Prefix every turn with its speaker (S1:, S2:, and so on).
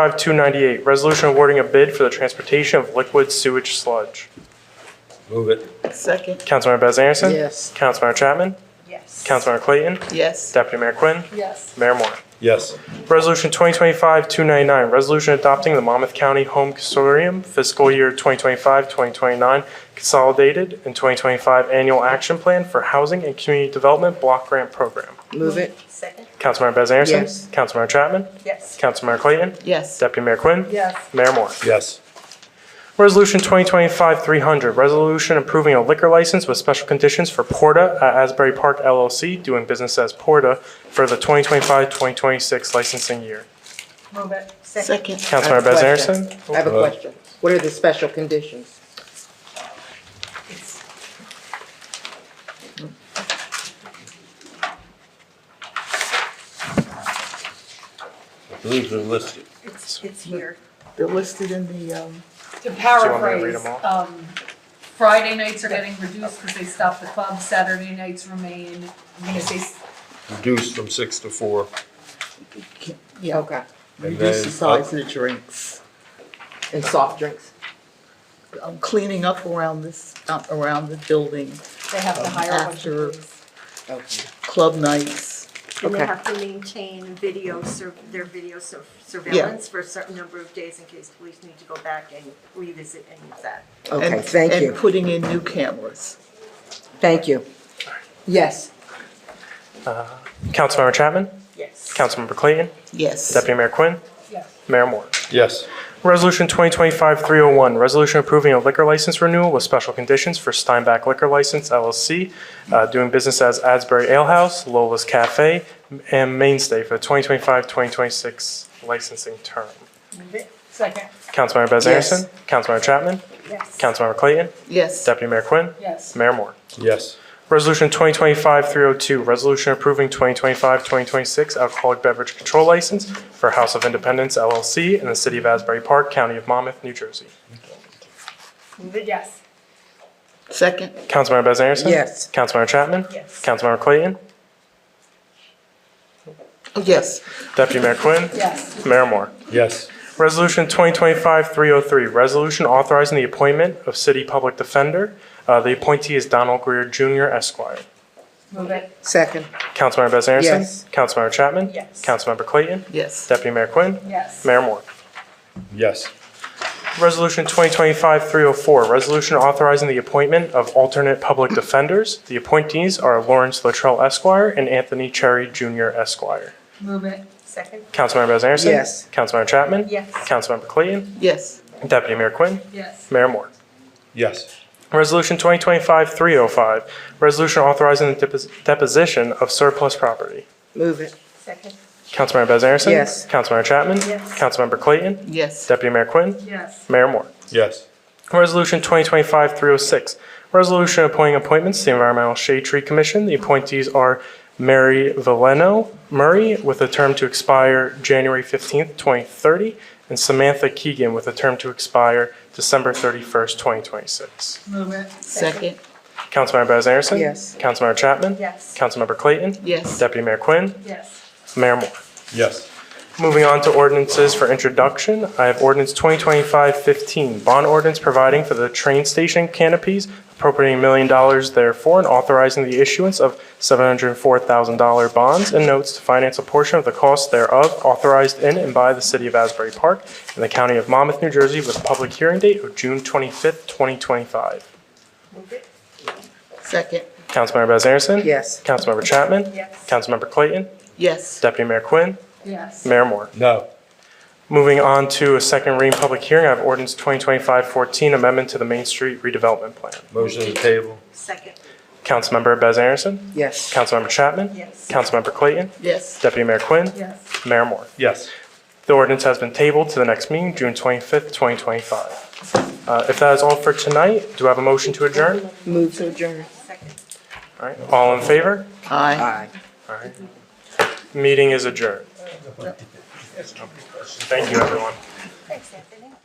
S1: 2025-298, resolution awarding a bid for the transportation of liquid sewage sludge.
S2: Move it.
S3: Second.
S1: Councilmember Bez Anderson.
S3: Yes.
S1: Councilmember Chapman.
S4: Yes.
S1: Councilmember Clayton.
S3: Yes.
S1: Deputy Mayor Quinn.
S4: Yes.
S1: Mayor Moore.
S2: Yes.
S1: Resolution 2025-299, resolution adopting the Monmouth County Home Consortium fiscal year 2025-2029 consolidated and 2025 annual action plan for housing and community development block grant program.
S3: Move it.
S4: Second.
S1: Councilmember Bez Anderson.
S3: Yes.
S1: Councilmember Chapman.
S4: Yes.
S1: Councilmember Clayton.
S3: Yes.
S1: Deputy Mayor Quinn.
S4: Yes.
S1: Mayor Moore.
S2: Yes.
S1: Resolution 2025-300, resolution approving a liquor license with special conditions for Porta at Asbury Park LLC, doing business as Porta, for the 2025-2026 licensing year.
S4: Move it.
S3: Second.
S1: Councilmember Bez
S3: I have a question.
S1: Anderson?
S3: I have a question. What are the special conditions?
S4: It's-
S2: I believe they're listed.
S4: It's, it's here.
S3: They're listed in the, um,
S1: you want me to
S5: To
S1: read
S5: paraphrase,
S1: 'em all?
S5: um, Friday nights are getting reduced because they stop the club, Saturday nights remain, I'm gonna say, s-
S2: Reduced from six to four.
S3: yeah, okay.
S2: And
S3: Reduce
S2: then
S3: the size of the drinks and soft drinks. I'm cleaning up around this, uh, around the building,
S5: they have to hire a bunch
S3: After-
S5: of police.
S3: club nights.
S6: And they
S3: Okay.
S6: have to maintain video, sur- their video sur- surveillance for a certain number of days in case police need to go back and revisit any of that.
S3: Okay, thank you. And putting in new cameras.
S7: Thank you.
S3: Yes.
S1: Councilmember Chapman?
S4: Yes.
S1: Councilmember Clayton?
S3: Yes.
S1: Deputy Mayor Quinn?
S5: Yes.
S1: Mayor Moore.
S2: Yes.
S1: Resolution 2025-301, resolution approving a liquor license renewal with special conditions for Steinbach Liquor License LLC, uh, doing business as Asbury Ale House, Lola's Cafe, and Mainstay for the 2025-2026 licensing term.
S4: Move it.
S5: Second,
S1: Councilmember Bez
S3: Yes.
S1: Anderson. Councilmember Chapman.
S4: Yes.
S1: Councilmember Clayton.
S3: Yes.
S1: Deputy Mayor Quinn.
S5: yes.
S1: Mayor Moore.
S2: Yes.
S1: Resolution 2025-302, resolution approving 2025-2026 alcoholic beverage control license for House of Independence LLC in the city of Asbury Park, County of Monmouth, New Jersey.
S4: Move it. Yes.
S3: Second?
S1: Councilmember Bez Anderson?
S3: Yes.
S1: Councilmember Chapman?
S4: Yes.
S1: Councilmember Clayton?
S3: Oh, Yes.
S1: Deputy Mayor Quinn?
S5: Yes.
S1: Mayor Moore?
S2: Yes.
S1: Resolution 2025-303, resolution authorizing the appointment of city public defender. Uh, The appointee is Donald Greer Jr. Esquire.
S5: Move it,
S3: Second?
S1: Councilmember Bez Anderson?
S3: Yes.
S1: Councilmember Chapman?
S4: Yes.
S1: Councilmember Clayton?
S3: Yes.
S1: Deputy Mayor Quinn?
S5: yes.
S1: Mayor Moore?
S2: Yes.
S1: Resolution 2025-304, resolution authorizing the appointment of alternate public defenders. The appointees are Lawrence Latrell Esquire and Anthony Cherry Jr. Esquire.
S5: Move it,
S4: Second.
S1: Councilmember Bez Anderson?
S3: Yes.
S1: Councilmember Chapman?
S4: Yes.
S1: Councilmember Clayton?
S3: Yes.
S1: Deputy Mayor Quinn?
S5: yes.
S1: Mayor Moore?
S2: Yes.
S1: Resolution 2025-305, resolution authorizing the depos- deposition of surplus property.
S3: Move it.
S4: Second.
S1: Councilmember Bez Anderson?
S3: Yes.
S1: Councilmember Chapman?
S4: Yes.
S1: Councilmember Clayton?
S3: Yes.
S1: Deputy Mayor Quinn?
S5: Yes.
S1: Mayor Moore?
S2: Yes.
S1: Resolution 2025-306, resolution appointing appointments to the Environmental Shade Tree Commission. The appointees are Mary Valeno Murray with a term to expire January 15th, 2030, and Samantha Keegan with a term to expire December 31st, 2026.
S5: Move it,
S3: Second?
S1: Councilmember Bez Anderson?
S3: Yes.
S1: Councilmember Chapman?
S4: Yes.
S1: Councilmember Clayton?
S3: Yes.
S1: Deputy Mayor Quinn?
S5: yes.
S1: Mayor Moore?
S2: Yes.
S1: Moving on to ordinances for introduction, I have ordinance 2025-15, bond ordinance providing for the train station canopies, appropriating a million dollars therefore, and authorizing the issuance of $704,000 bonds and notes to finance a portion of the cost thereof authorized in and by the city of Asbury Park and the county of Monmouth, New Jersey, with a public hearing date of June 25th, 2025.
S4: Move it.
S3: Second?
S1: Councilmember Bez Anderson?
S3: Yes.
S1: Councilmember Chapman?
S4: Yes.
S1: Councilmember Clayton?
S3: Yes.
S1: Deputy Mayor Quinn?
S5: Yes.
S1: Mayor Moore?
S2: No.
S1: Moving on to a second reading public hearing, I have ordinance 2025-14, amendment to the Main Street redevelopment plan.
S2: Motion to table.
S6: Second.
S1: Councilmember Bez Anderson.
S3: Yes.
S1: Councilmember Chapman.
S4: Yes.
S1: Councilmember Clayton.
S3: Yes.
S1: Deputy Mayor Quinn.
S5: Yes.
S1: Mayor Moore.
S2: Yes.
S1: The ordinance has been tabled to the next meeting, June 25th, 2025. Uh, If that is all for tonight, do I have a motion to adjourn?
S3: Move to adjourn.
S6: Second.
S1: All right, all in favor?
S3: Aye.
S1: All right. Meeting is adjourned. Thank you, everyone.
S6: Thanks, Anthony.